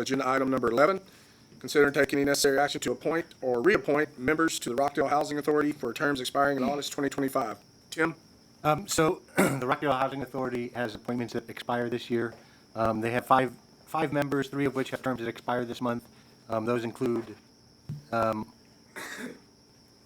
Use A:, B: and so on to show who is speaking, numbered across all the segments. A: Agenda item number 11, consider and take any necessary action to appoint or reappoint members to the Rockdale Housing Authority for terms expiring in August 2025. Tim?
B: Um, So the Rockdale Housing Authority has appointments that expire this year. Um, They have five, five members, three of which have terms that expire this month. Um, Those include um,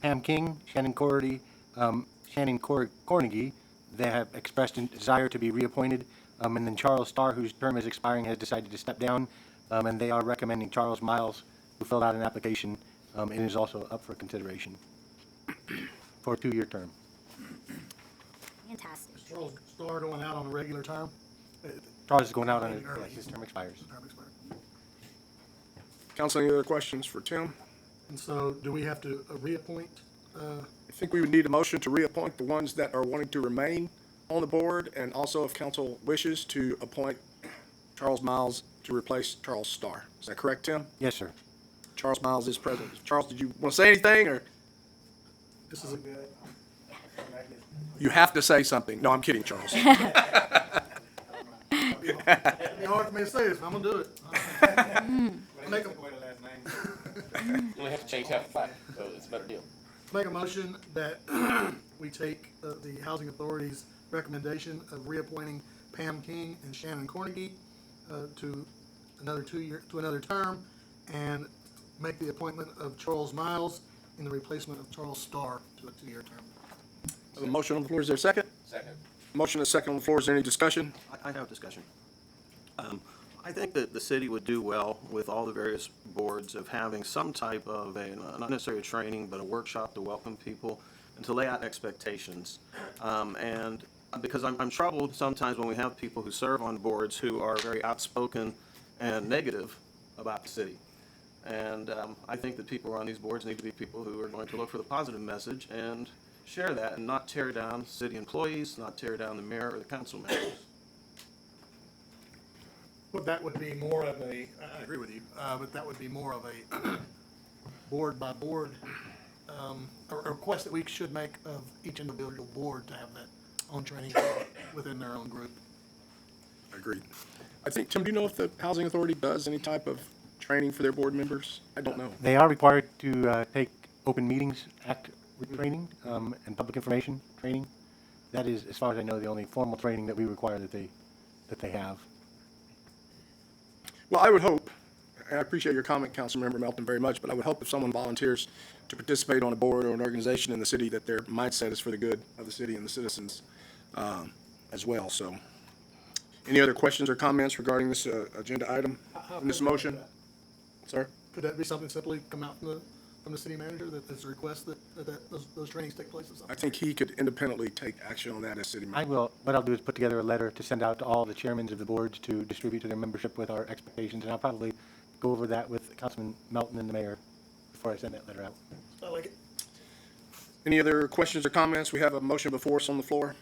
B: Pam King, Shannon Cordy, um, Shannon Cor- Cornegie. They have expressed a desire to be reappointed. Um, And then Charles Starr, whose term is expiring, has decided to step down. Um, And they are recommending Charles Miles, who filled out an application um, and is also up for consideration for a two-year term.
C: Fantastic.
D: Charles Starr going out on a regular term?
B: Charles is Oh, going out on, his- yeah, his term expires.
D: Term expired.
A: Council, any other questions for Tim?
D: And so do we have to uh, reappoint? uh,
A: I think we would need a motion to reappoint the ones that are wanting to remain on the board, and also if council wishes to appoint Charles Miles to replace Charles Starr. Is that correct, Tim?
B: Yes, sir.
A: Charles Miles is present. Charles, did you want to say anything, or
D: This is a,
A: you have to say something? No, I'm kidding, Charles.
D: it'd be hard for me to say this, but I'm gonna do it. Make a,
E: You only have to change half the plaque, so it's a better deal.
D: make a motion that we take uh, the Housing Authority's recommendation of reappointing Pam King and Shannon Cornegie uh, to another two-year, to another term, and make the appointment of Charles Miles in the replacement of Charles Starr to a two-year term.
A: A motion on the floor, is there a second?
E: Second.
A: Motion and second on the floor, is there any discussion?
F: I, I have discussion. Um, I think that the city would do well with all the various boards of having some type of a, not necessarily a training, but a workshop to welcome people and to lay out expectations. Um, and because I'm, I'm troubled sometimes when we have people who serve on boards who are very outspoken and negative about the city. And um, I think that people who are on these boards need to be people who are going to look for the positive message and share that and not tear down city employees, not tear down the mayor or the council members.
D: Well, that would be more of a, I- I agree with you, uh, but that would be more of a board by board, um, a a request that we should make of each individual board to have that own training within their own group.
A: Agreed. I think, Tim, do you know if the Housing Authority does any type of training for their board members? I don't know.
B: They are required to uh, take Open Meetings Act training um, and public information training. That is, as far as I know, the only formal training that we require that they, that they have.
A: Well, I would hope, and I appreciate your comment, Councilmember Melton, very much, but I would hope if someone volunteers to participate on a board or an organization in the city, that their mindset is for the good of the city and the citizens um, as well, so. Any other questions or comments regarding this uh, agenda item, and this motion? Sir?
D: Could that be something simply come out from the, from the city manager, that there's a request that, that- that, those, those trainings take place or
A: I
D: something?
A: think he could independently take action on that as city manager.
B: I will, what I'll do is put together a letter to send out to all the chairmans of the boards to distribute to their membership with our expectations, and I'll probably go over that with Councilman Melton and the mayor before I send that letter out.
D: I like it.
A: Any other questions or comments? We have a motion before us on the floor.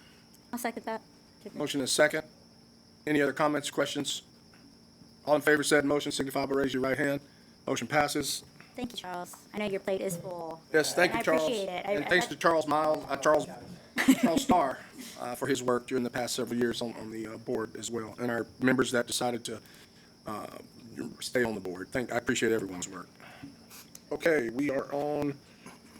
C: I'll second that.
A: Motion is second. Any other comments, questions? All in favor of said motion signify by raising your right hand. Motion passes.
C: Thank you, Charles. I know your plate is full.
A: Yes, thank
C: I
A: you, Charles.
C: appreciate it. I-
A: And thanks to Charles Miles, uh, Charles, Charles Starr, uh, for his work during the past several years on, on the, uh, board as well. And our members that decided to, uh, stay on the board. Thank, I appreciate everyone's work. Okay, we are on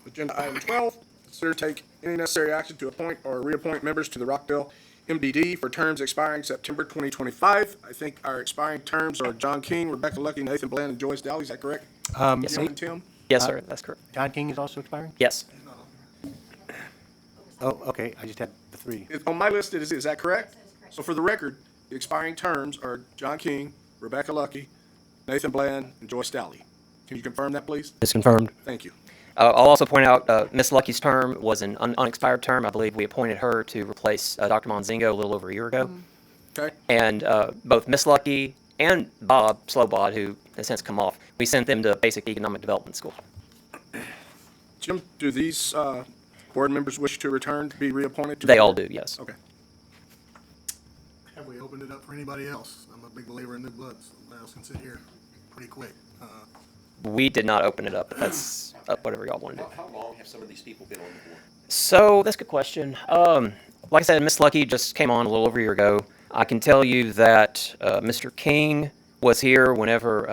A: agenda item twelve. Consider take any necessary action to appoint or reappoint members to the Rockdale MDD for terms expiring September twenty twenty-five. I think our expiring terms are John King, Rebecca Lucky, Nathan Bland, and Joyce Dowdy. Is that correct?
B: Um,
A: Jim and Tim?
E: Yes, sir, that's correct.
B: John King is also expiring?
E: Yes.
B: Oh, okay, I just had the three.
A: It- On my list, it is, is that correct? So for the record, the expiring terms are John King, Rebecca Lucky, Nathan Bland, and Joyce Dowley. Can you confirm that, please?
G: It's confirmed.
A: Thank you.
E: Uh, I'll also point out, uh, Ms. Lucky's term was an un- unexpired term. I believe we appointed her to replace, uh, Dr. Monzingo a little over a year ago.
A: Okay?
E: And, uh, both Ms. Lucky and Bob Slowbod, who has since come off, we sent them to basic economic development school.
A: Jim, do these, uh, board members wish to return to be reappointed? to the
E: They all do,
A: board?
E: yes.
A: Okay.
D: Have we opened it up for anybody else? I'm a big believer in new blood, so somebody else can sit here pretty quick. Uh,
E: We did not open it up, but that's up whatever y'all want to do.
H: How long have some of these people been on the board?
E: So that's a good question. Um, like I said, Miss Lucky just came on a little over a year ago. I can tell you that uh, Mr. King was here whenever uh,